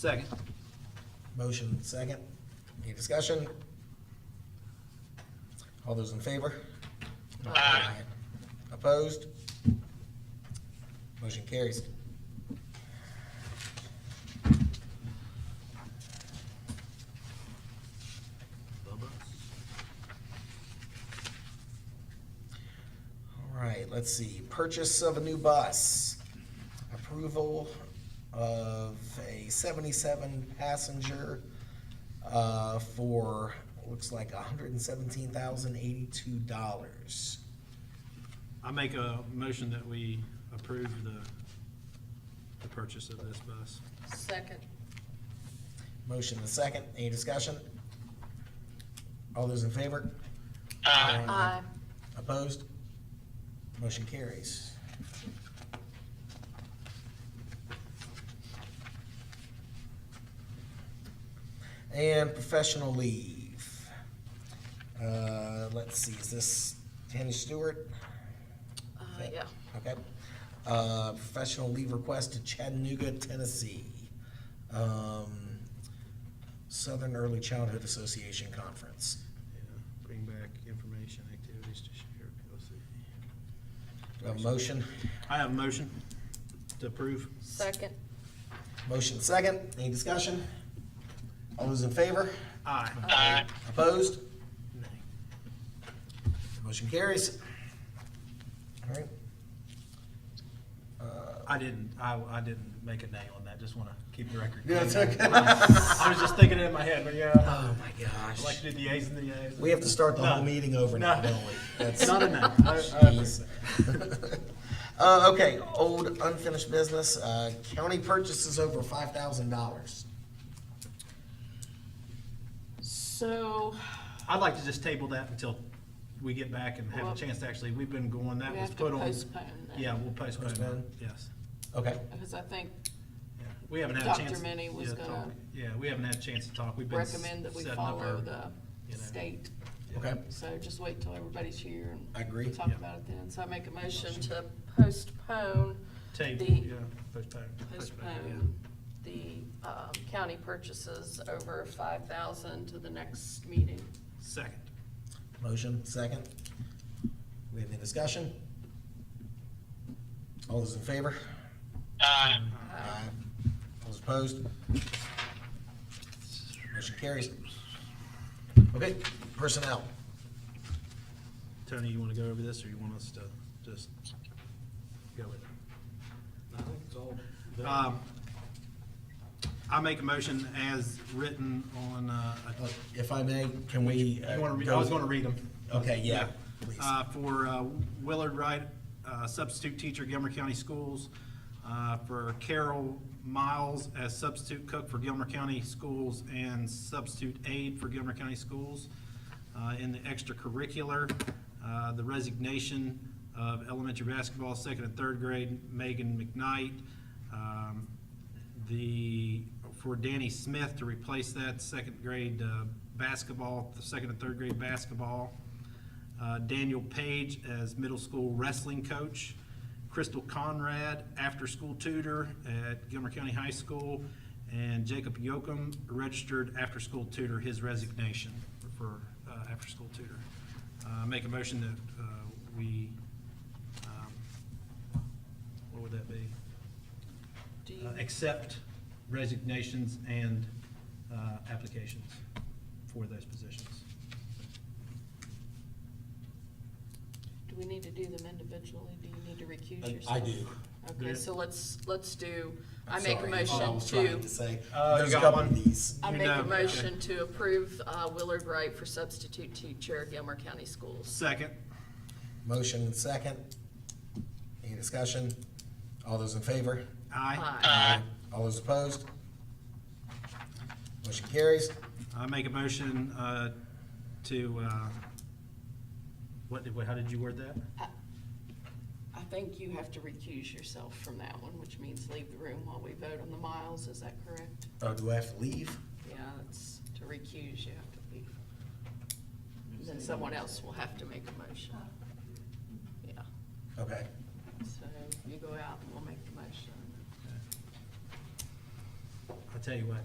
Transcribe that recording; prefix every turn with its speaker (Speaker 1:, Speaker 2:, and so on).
Speaker 1: Second.
Speaker 2: Motion second. Any discussion? All those in favor? Aye. Opposed? Motion carries. All right, let's see. Purchase of a new bus. Approval of a seventy-seven passenger uh, for, looks like hundred and seventeen thousand eighty-two dollars.
Speaker 1: I make a motion that we approve the, the purchase of this bus.
Speaker 3: Second.
Speaker 2: Motion and second. Any discussion? All those in favor?
Speaker 3: Aye.
Speaker 2: Opposed? Motion carries. And professional leave. Uh, let's see, is this Tammy Stewart?
Speaker 3: Uh, yeah.
Speaker 2: Okay. Uh, professional leave request to Chattanooga, Tennessee. Um, Southern Early Childhood Association Conference.
Speaker 1: Yeah, Bring back information, activities to share, PLC.
Speaker 2: Do I have A motion?
Speaker 1: I have a motion to approve.
Speaker 3: Second.
Speaker 2: Motion second, any discussion? All those in favor?
Speaker 1: Aye.
Speaker 3: Aye.
Speaker 2: Opposed?
Speaker 1: Nay.
Speaker 2: Motion carries. All right.
Speaker 1: I didn't, I, I didn't make a nay on that, just wanna keep the record.
Speaker 2: Yeah, it's okay.
Speaker 1: I was just thinking it in my head, but yeah,
Speaker 2: Oh, my
Speaker 1: I like
Speaker 2: gosh.
Speaker 1: to do the ayes and the ayes.
Speaker 2: We have to start the whole
Speaker 1: No.
Speaker 2: meeting over now,
Speaker 1: No.
Speaker 2: don't we? That's-
Speaker 1: Not a nay. I- I-
Speaker 2: Jeez. Uh, okay, old unfinished business, uh, county purchases over five thousand dollars.
Speaker 3: So,
Speaker 1: I'd like to just table that until we get back and have
Speaker 3: Well-
Speaker 1: a chance to actually, we've been going, that
Speaker 3: we
Speaker 1: was
Speaker 3: have to
Speaker 1: put on.
Speaker 3: postpone that.
Speaker 1: Yeah, we'll postpone that,
Speaker 2: Postpone?
Speaker 1: yes.
Speaker 2: Okay,
Speaker 3: Because I think
Speaker 1: Yeah, We haven't had a
Speaker 3: Dr.
Speaker 1: chance.
Speaker 3: Minnie was
Speaker 1: yeah,
Speaker 3: gonna
Speaker 1: talk. Yeah, we haven't had a chance to talk. We've been s-
Speaker 3: recommend that we
Speaker 1: setting up our-
Speaker 3: follow
Speaker 1: you
Speaker 3: the
Speaker 1: know.
Speaker 3: state.
Speaker 2: okay,
Speaker 3: So just wait till everybody's here and.
Speaker 2: I agree.
Speaker 3: Talk about it then. So I make a motion to postpone,
Speaker 1: Table,
Speaker 3: the-
Speaker 1: yeah, postpone.
Speaker 3: postpone the um, county purchases over five thousand to the next meeting.
Speaker 1: yeah. Second.
Speaker 2: motion second. We have any discussion? All those in favor? Aye. All opposed? Motion carries. Okay, personnel.
Speaker 1: Tony, you want to go over this or you want us to just go with it?
Speaker 4: I think it's all done.
Speaker 1: Um, I make a motion as written on, uh, I-
Speaker 2: If I may, can we? uh,
Speaker 1: you want to, read?
Speaker 2: go-
Speaker 1: I was going to read them.
Speaker 2: Okay, yeah, please.
Speaker 1: Uh, for uh, Willard Wright, uh, substitute teacher, Gilmer County Schools. Uh, For Carol Miles as substitute cook for Gilmer County Schools and substitute aide for Gilmer County Schools. Uh, In the extracurricular, uh, the resignation of elementary basketball, second and third grade, Megan McKnight. Um, The, for Danny Smith to replace that, second grade uh, basketball, the second and third grade basketball. Uh, Daniel Page as middle school wrestling coach, Crystal Conrad, after-school tutor at Gilmer County High School, and Jacob Yocum, registered after-school tutor, his resignation for uh, after-school tutor. Uh, Make a motion that uh, we, um, what would that be?
Speaker 3: Do you,
Speaker 1: Uh, Accept resignations and uh, applications for those positions.
Speaker 3: do we need to do them individually? Do you need to recuse
Speaker 2: I-
Speaker 3: yourself?
Speaker 2: I do.
Speaker 3: Okay,
Speaker 1: Yeah.
Speaker 3: so let's, let's do,
Speaker 2: I'm
Speaker 3: I make a
Speaker 2: sorry. That's what I
Speaker 3: motion
Speaker 2: was trying
Speaker 3: to,
Speaker 2: to say.
Speaker 1: Uh, you
Speaker 2: There's a
Speaker 1: got
Speaker 2: couple of
Speaker 1: one?
Speaker 2: these.
Speaker 3: I
Speaker 1: You
Speaker 3: make
Speaker 1: know,
Speaker 3: a
Speaker 1: okay.
Speaker 3: motion to approve uh, Willard Wright for substitute teacher, Gilmer County Schools.
Speaker 1: Second.
Speaker 2: Motion and second. Any discussion? All those in favor?
Speaker 1: Aye.
Speaker 3: Aye.
Speaker 2: All those opposed? Motion carries.
Speaker 1: I make a motion uh, to, uh, what did, how did you word that?
Speaker 3: I think you have to recuse yourself from that one, which means leave the room while we vote on the miles, is that correct?
Speaker 2: Oh, do I have to leave?
Speaker 3: Yeah, that's, to recuse, you have to leave. And Then someone else will have to make a motion. Yeah,
Speaker 2: Okay.
Speaker 3: so you go out and we'll make the motion.
Speaker 1: I tell you what,